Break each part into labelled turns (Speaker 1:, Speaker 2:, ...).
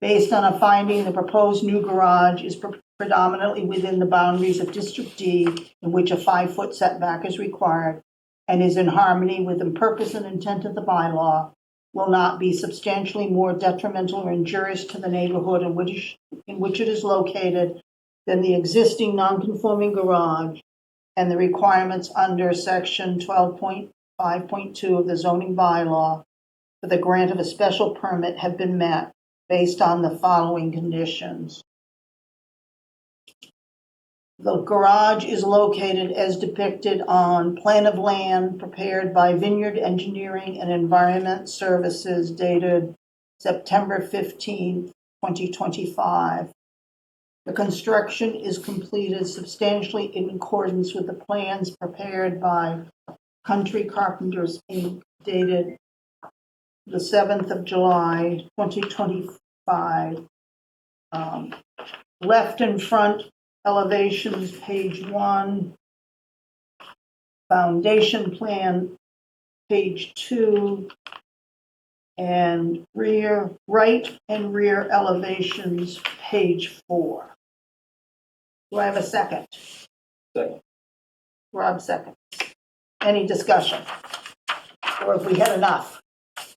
Speaker 1: Based on a finding, the proposed new garage is pre- predominantly within the boundaries of District D, in which a five-foot setback is required, and is in harmony with the purpose and intent of the bylaw, will not be substantially more detrimental or injurious to the neighborhood in which, in which it is located than the existing non-conforming garage, and the requirements under section 12.5.2 of the zoning bylaw for the grant of a special permit have been met based on the following conditions. The garage is located as depicted on plan of land prepared by Vineyard Engineering and Environment Services dated September 15, 2025. The construction is completed substantially in accordance with the plans prepared by Country Carpenters Inc. dated the 7th of July, 2025. Um, Left and front elevations, page one. Foundation plan, page two. And rear, right and rear elevations, page four. Do I have a second?
Speaker 2: Second.
Speaker 1: Rob second. Any discussion? Or if we had enough?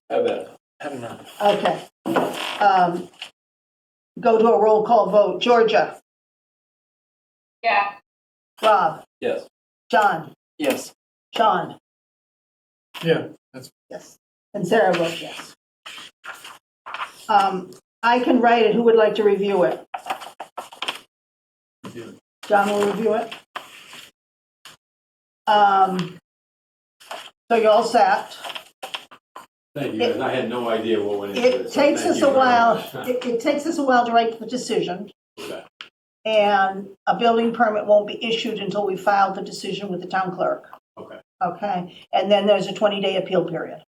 Speaker 2: Have that.
Speaker 1: Okay. Um, Go to a roll call vote. Georgia,
Speaker 3: Yeah,
Speaker 1: Rob,
Speaker 2: Yes.
Speaker 1: John,
Speaker 2: Yes.
Speaker 1: Sean,
Speaker 4: Yeah, that's,
Speaker 1: yes, and Sarah votes yes. Um, I can write it. Who would like to review it?
Speaker 4: Review
Speaker 1: John will review it. Um, So you're all set.
Speaker 5: Thank you, guys. I had no idea what went into this.
Speaker 1: It
Speaker 5: so
Speaker 1: takes
Speaker 5: thank
Speaker 1: us
Speaker 5: you
Speaker 1: a
Speaker 5: very
Speaker 1: while,
Speaker 5: much.
Speaker 1: it it takes us a while to write the decision.
Speaker 5: Okay.
Speaker 1: And a building permit won't be issued until we file the decision with the town clerk.
Speaker 5: Okay.
Speaker 1: Okay, and then there's a 20-day appeal period.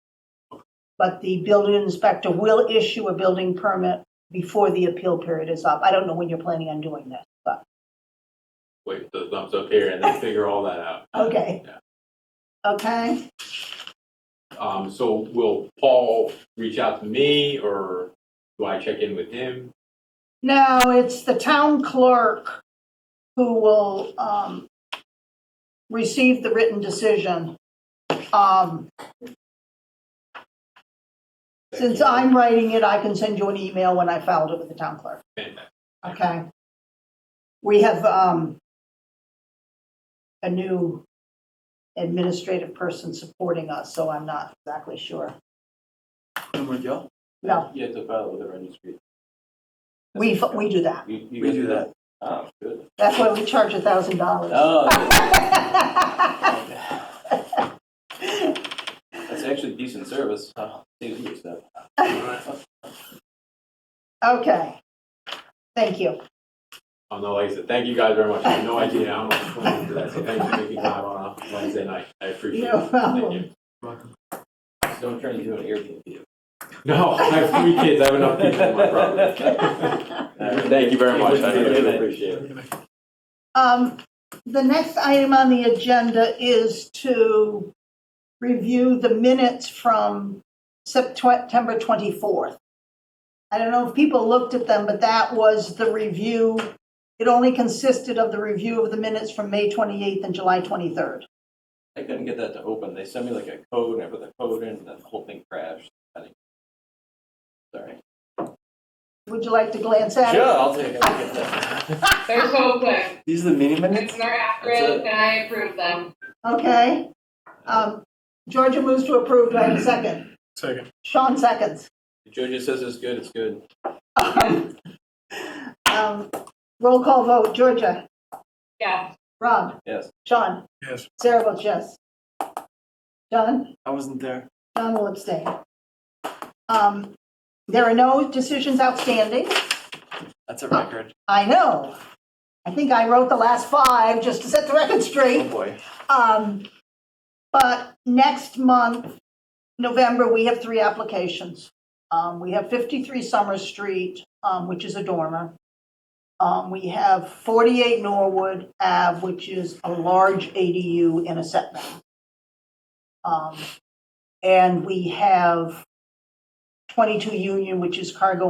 Speaker 1: But the building inspector will issue a building permit before the appeal period is up. I don't know when you're planning on doing this, but,
Speaker 5: Wait, the thumbs up here and then figure all that out.
Speaker 1: okay. Okay,
Speaker 5: Um, so will Paul reach out to me or do I check in with him?
Speaker 1: now it's the town clerk who will um, receive the written decision. Um, Since I'm writing it, I can send you an email when I filed it with the town clerk,
Speaker 5: Fantastic.
Speaker 1: okay? We have um, a new administrative person supporting us, so I'm not exactly sure.
Speaker 4: number Joe?
Speaker 1: No,
Speaker 2: You have to file with the registry.
Speaker 1: we, we do that.
Speaker 2: You- you
Speaker 4: We
Speaker 2: guys
Speaker 4: do that.
Speaker 2: Oh, good.
Speaker 1: That's why we charge a thousand dollars.
Speaker 2: Oh, that's actually decent service. Oh, Seems good stuff.
Speaker 1: Okay, thank you.
Speaker 5: Oh, no, like I said, thank you guys very much. I had no idea how much went into that, so thank you for making time on a Wednesday night. I appreciate it.
Speaker 1: No
Speaker 5: Thank
Speaker 1: problem.
Speaker 5: you.
Speaker 2: Don't turn into an Airbnb.
Speaker 5: No, I have three kids. I have enough people in my property. Thank you very much. I really appreciate it.
Speaker 1: Um, The next item on the agenda is to review the minutes from September 24th. I don't know if people looked at them, but that was the review. It only consisted of the review of the minutes from May 28th and July 23rd.
Speaker 2: I couldn't get that to open. They sent me like a code and I put the code in and then the whole thing crashed. I think- Sorry.
Speaker 1: Would you like to glance at
Speaker 2: Sure,
Speaker 1: it?
Speaker 2: I'll take a look at that.
Speaker 3: they're so good.
Speaker 4: These are the mini
Speaker 3: And
Speaker 4: minutes?
Speaker 3: they're accurate, and I approve them.
Speaker 1: Okay. Um, Georgia moves to approve. Do I have a second?
Speaker 4: Second.
Speaker 1: Sean seconds.
Speaker 2: Jojo says it's good, it's good.
Speaker 1: Um, Roll call vote. Georgia,
Speaker 3: Yeah,
Speaker 1: Rob,
Speaker 2: Yes.
Speaker 1: Sean.
Speaker 4: Yes.
Speaker 1: Sarah votes yes. John?
Speaker 4: I wasn't there.
Speaker 1: John will abstain. Um, There are no decisions outstanding.
Speaker 4: That's a record.
Speaker 1: I know. I think I wrote the last five just to set the record straight.
Speaker 4: Oh, boy.
Speaker 1: Um, But next month, November, we have three applications. Um, We have 53 Summer Street, um, which is a dormer. Um, We have 48 Norwood Ave, which is a large ADU in a setback. Um, And we have 22 Union, which is cargo